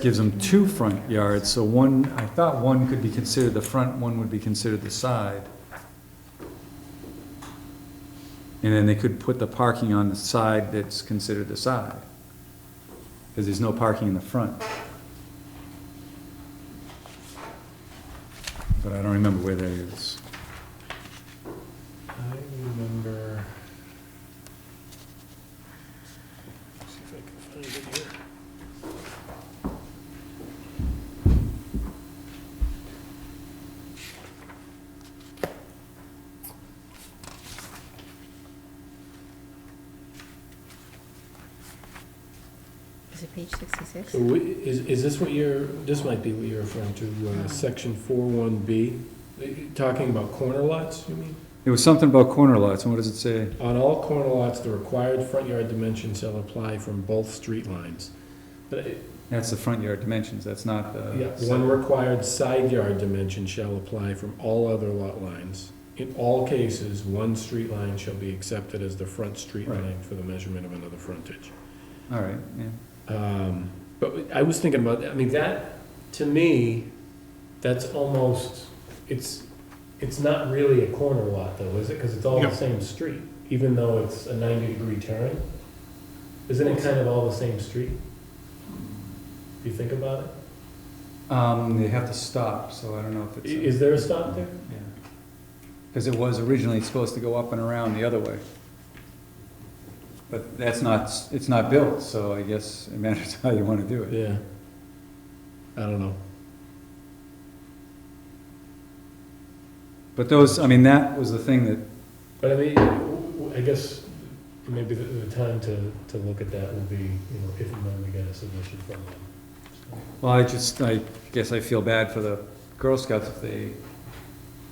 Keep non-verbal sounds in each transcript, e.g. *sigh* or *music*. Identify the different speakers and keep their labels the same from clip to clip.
Speaker 1: gives them two front yards, so one, I thought one could be considered the front, one would be considered the side. And then they could put the parking on the side that's considered the side. Because there's no parking in the front. But I don't remember where that is.
Speaker 2: I remember. See if I can find it here.
Speaker 3: Is it page sixty-six?
Speaker 2: So we- is, is this what you're, this might be what you're referring to, uh, section four one B, Uh, talking about corner lots, you mean?
Speaker 1: It was something about corner lots, and what does it say?
Speaker 2: On all corner lots, the required front yard dimensions shall apply from both street lines. But it-
Speaker 1: That's the front yard dimensions, that's not the.
Speaker 2: Yeah, one required side yard dimension shall apply from all other lot lines. In all cases, one street line shall be accepted as the front street
Speaker 1: Right.
Speaker 2: line for the measurement of another frontage.
Speaker 1: All right, yeah.
Speaker 2: Um, But I was thinking about, that. I mean, that, to me, that's almost, it's, it's not really a corner lot though, is it? Because it's all
Speaker 4: No.
Speaker 2: the same street, even though it's a ninety-degree turn. Isn't it kind of all the same street? If you think about it?
Speaker 1: Um, they have to stop, so I don't know if
Speaker 2: I-
Speaker 1: it's. a-
Speaker 2: Is there a stop there?
Speaker 1: Because it was originally supposed to go up and around the other way. But that's not, it's not built, so I guess it matters *laughs* how you want to do it.
Speaker 2: Yeah. I don't know.
Speaker 1: But those, I mean, that was the thing that,
Speaker 2: But I mean, w- w- I guess maybe the, the time to, to look at that will be, you know, if and when we get a submission from them.
Speaker 1: well, I just, I guess I feel bad for the Girl Scouts if they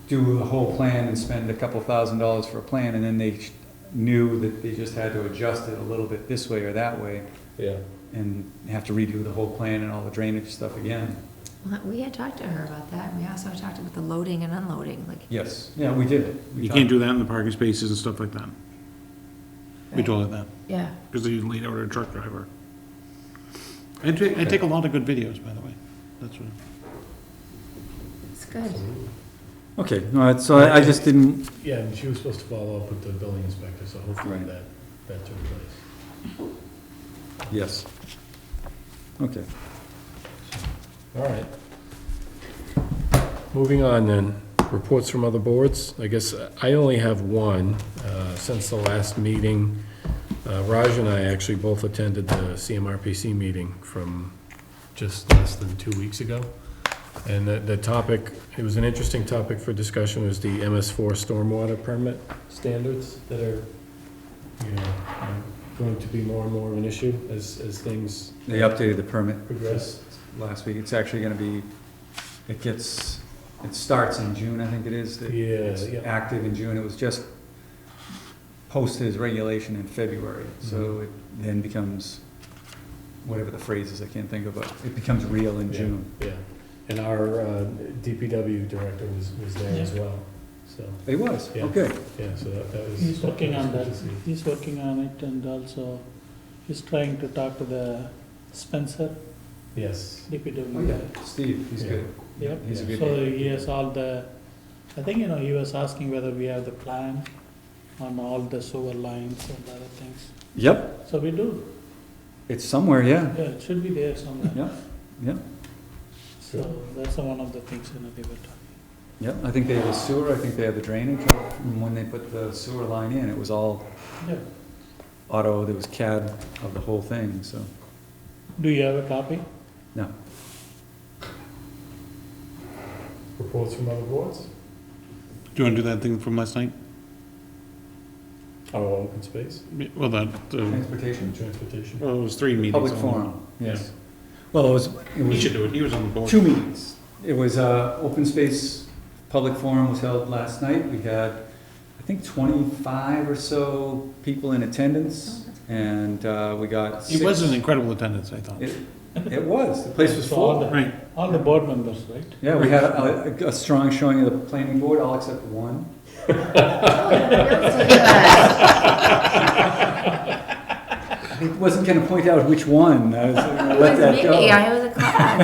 Speaker 1: do the whole plan and spend a couple thousand dollars for a plan, and then they sh- knew that they just had to adjust it a little bit this way or that way,
Speaker 2: Yeah.
Speaker 1: and have to redo the whole plan and all the drainage stuff again.
Speaker 3: Well, we had talked to her about that, and we also talked about the loading and unloading, like.
Speaker 1: Yes, yeah, we did it. We
Speaker 4: You
Speaker 1: talked-
Speaker 4: can't do that in the parking spaces and stuff like that. We told it that,
Speaker 3: Yeah,
Speaker 4: because they laid out a truck driver. I take, I take a lot of good videos, by the way. That's what,
Speaker 3: it's good. *laughs*
Speaker 1: Okay, all right, so I I just didn't,
Speaker 2: Yeah, and she was supposed to follow up with the building inspector, so hopefully
Speaker 1: Right.
Speaker 2: that, that took place.
Speaker 1: Yes. Okay.
Speaker 2: All right. Moving on then, reports from other boards. I guess I only have one, uh, since the last meeting. Uh, Raj and I actually both attended the CMRPC meeting from just less than two weeks ago. And the, the topic, it was an interesting topic for discussion, was the MS4 stormwater permit standards that are, you know, um, going to be more and more of an issue as, as things
Speaker 1: They updated the permit
Speaker 2: progress.
Speaker 1: last week. It's actually gonna be, it gets, it starts in June, I think it is. It-
Speaker 2: Yeah,
Speaker 1: It's
Speaker 2: yeah.
Speaker 1: active in June. It was just posted as regulation in February,
Speaker 2: Mm-hmm.
Speaker 1: so it then becomes, whatever the phrase is, I can't think of, but it becomes real in
Speaker 2: Yeah,
Speaker 1: June.
Speaker 2: Yeah, and our uh, DPW director was, was there as well, so,
Speaker 1: It was,
Speaker 2: Yeah.
Speaker 1: okay.
Speaker 2: yeah, so that that was.
Speaker 5: He's working on
Speaker 2: that.
Speaker 5: that,
Speaker 2: was good to see.
Speaker 5: he's working on it and also he's trying to talk to the Spencer
Speaker 2: Yes,
Speaker 1: Oh,
Speaker 5: DPW.
Speaker 1: yeah, Steve, he's
Speaker 2: Yeah.
Speaker 1: good.
Speaker 5: Yep.
Speaker 1: He's a good
Speaker 5: So
Speaker 1: guy.
Speaker 5: he has all the, I think, you know, he was asking whether we have the plan on all the sewer lines and other things.
Speaker 1: Yep,
Speaker 5: So we do,
Speaker 1: it's somewhere, yeah,
Speaker 5: yeah, it should be there somewhere.
Speaker 1: yeah, yeah.
Speaker 5: So that's one of the things, you know, they were talking.
Speaker 1: Yeah, I think they have the sewer, I think they have the drainage, and when they put the sewer line in, it was all
Speaker 5: Yeah.
Speaker 1: auto, there was CAD of the whole thing, so,
Speaker 5: Do you have a copy?
Speaker 1: no.
Speaker 2: reports from other boards,
Speaker 4: do you want to do that thing from last night?
Speaker 2: our Oh, open space,
Speaker 4: Well, that, uh,
Speaker 1: Transportation?
Speaker 2: transportation.
Speaker 4: well, it was three meetings.
Speaker 1: Public
Speaker 4: on
Speaker 1: forum, yes. Well, it was, it
Speaker 4: that. He should
Speaker 1: was
Speaker 4: do it, he was on the board.
Speaker 1: two meetings. It was, uh, open space, public forum was held last night, we had, I think, twenty-five or so people in attendance, and, uh, we got
Speaker 4: It was
Speaker 1: six-
Speaker 4: an incredible attendance, I thought.
Speaker 1: It It was, the place was
Speaker 5: So all
Speaker 1: full.
Speaker 5: the-
Speaker 4: Right,
Speaker 5: All the board members, right?
Speaker 1: Yeah, we had a, a- a strong showing of the planning board, all except one. I wasn't gonna point out which one, I was gonna let
Speaker 3: It was
Speaker 1: that go.
Speaker 3: me, I was a class.